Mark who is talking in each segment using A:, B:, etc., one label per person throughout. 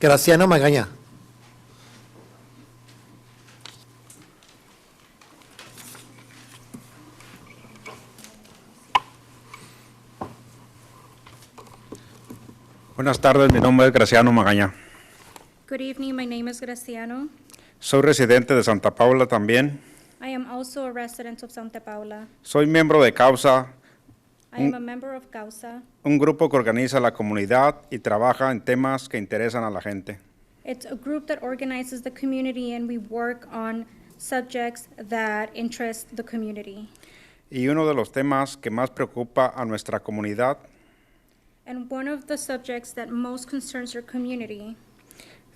A: Graciano Magaña.
B: Buenas tardes, mi nombre es Graciano Magaña.
C: Good evening, my name is Graciano.
B: Soy residente de Santa Paula también.
C: I am also a resident of Santa Paula.
B: Soy miembro de Causa,
C: I am a member of Causa.
B: un grupo que organiza la comunidad y trabaja en temas que interesan a la gente.
C: It's a group that organizes the community and we work on subjects that interest the community.
B: Y uno de los temas que más preocupa a nuestra comunidad
C: And one of the subjects that most concerns your community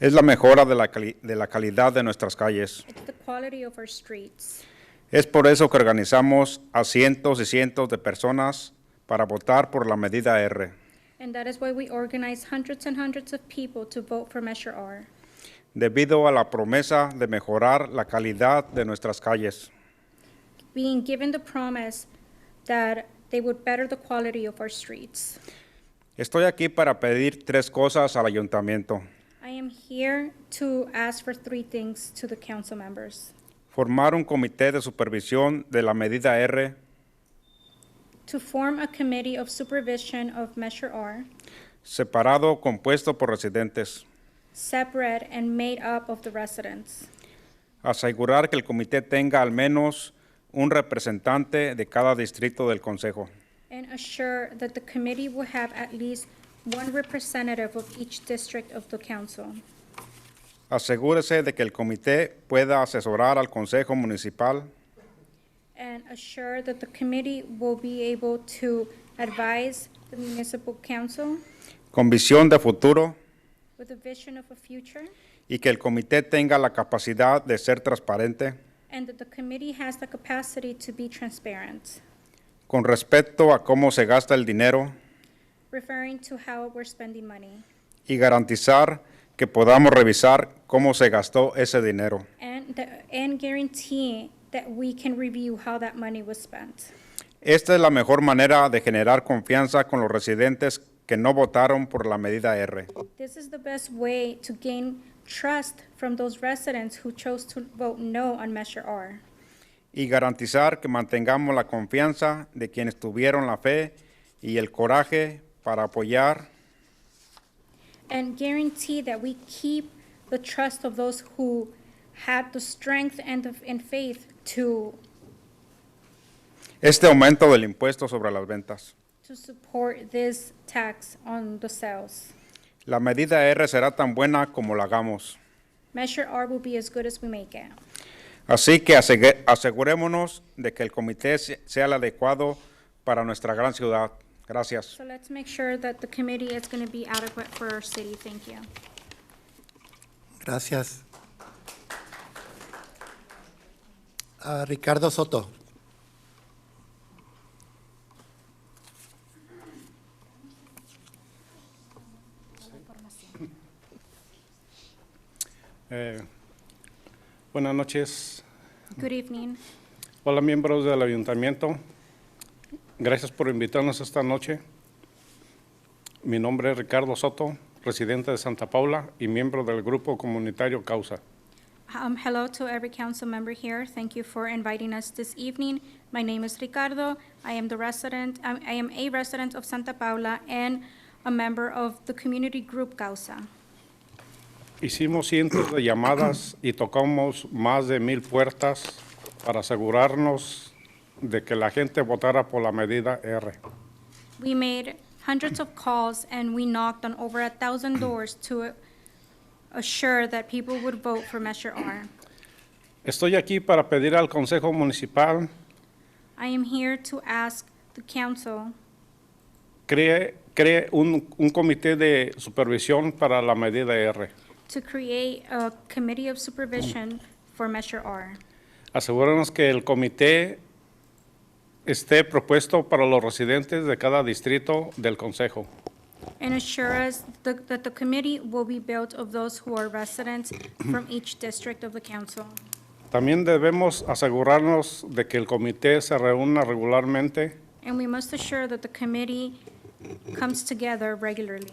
B: es la mejora de la, cali- de la calidad de nuestras calles.
C: is the quality of our streets.
B: Es por eso que organizamos a cientos y cientos de personas para votar por la medida R.
C: And that is why we organize hundreds and hundreds of people to vote for Measure R
B: debido a la promesa de mejorar la calidad de nuestras calles.
C: being given the promise that they would better the quality of our streets.
B: Estoy aquí para pedir tres cosas al ayuntamiento.
C: I am here to ask for three things to the council members.
B: Formar un comité de supervisión de la medida R,
C: To form a committee of supervision of Measure R,
B: separado, compuesto por residentes.
C: separate and made up of the residents.
B: Asegurar que el comité tenga al menos un representante de cada distrito del consejo.
C: And assure that the committee will have at least one representative of each district of the council.
B: Asegúrese de que el comité pueda asesorar al consejo municipal
C: And assure that the committee will be able to advise the municipal council
B: con visión de futuro
C: with a vision of a future.
B: y que el comité tenga la capacidad de ser transparente
C: And that the committee has the capacity to be transparent,
B: con respecto a cómo se gasta el dinero
C: referring to how we're spending money.
B: y garantizar que podamos revisar cómo se gastó ese dinero.
C: And, the- and guarantee that we can review how that money was spent.
B: Esta es la mejor manera de generar confianza con los residentes que no votaron por la medida R.
C: This is the best way to gain trust from those residents who chose to vote no on Measure R.
B: Y garantizar que mantengamos la confianza de quienes tuvieron la fe y el coraje para apoyar
C: And guarantee that we keep the trust of those who had the strength and, the- and faith to,
B: este aumento del impuesto sobre las ventas.
C: to support this tax on the sales.
B: La medida R será tan buena como la hagamos.
C: Measure R will be as good as we make it.
B: Así que asegue- asegurémonos de que el comité se- sea el adecuado para nuestra gran ciudad. Gracias.
C: So let's make sure that the committee is gonna be adequate for our city. Thank you.
A: Gracias. Ah, Ricardo Soto.
D: Eh, buenas noches.
C: Good evening.
D: Hola, miembros del ayuntamiento. Gracias por invitarnos esta noche. Mi nombre es Ricardo Soto, residente de Santa Paula y miembro del grupo comunitario Causa.
C: Um, hello to every council member here. Thank you for inviting us this evening. My name is Ricardo. I am the resident, I I am a resident of Santa Paula and a member of the community group Causa.
D: Hicimos cientos de llamadas y tocamos más de mil puertas para asegurarnos de que la gente votara por la medida R.
C: We made hundreds of calls and we knocked on over a thousand doors to assure that people would vote for Measure R.
D: Estoy aquí para pedir al Consejo Municipal
C: I am here to ask the council
D: cree, cree un, un comité de supervisión para la medida R.
C: to create a committee of supervision for Measure R.
D: Asegúranos que el comité esté propuesto para los residentes de cada distrito del consejo.
C: And assure us th- that the committee will be built of those who are residents from each district of the council.
D: También debemos asegurarnos de que el comité se reúna regularmente
C: And we must assure that the committee comes together regularly.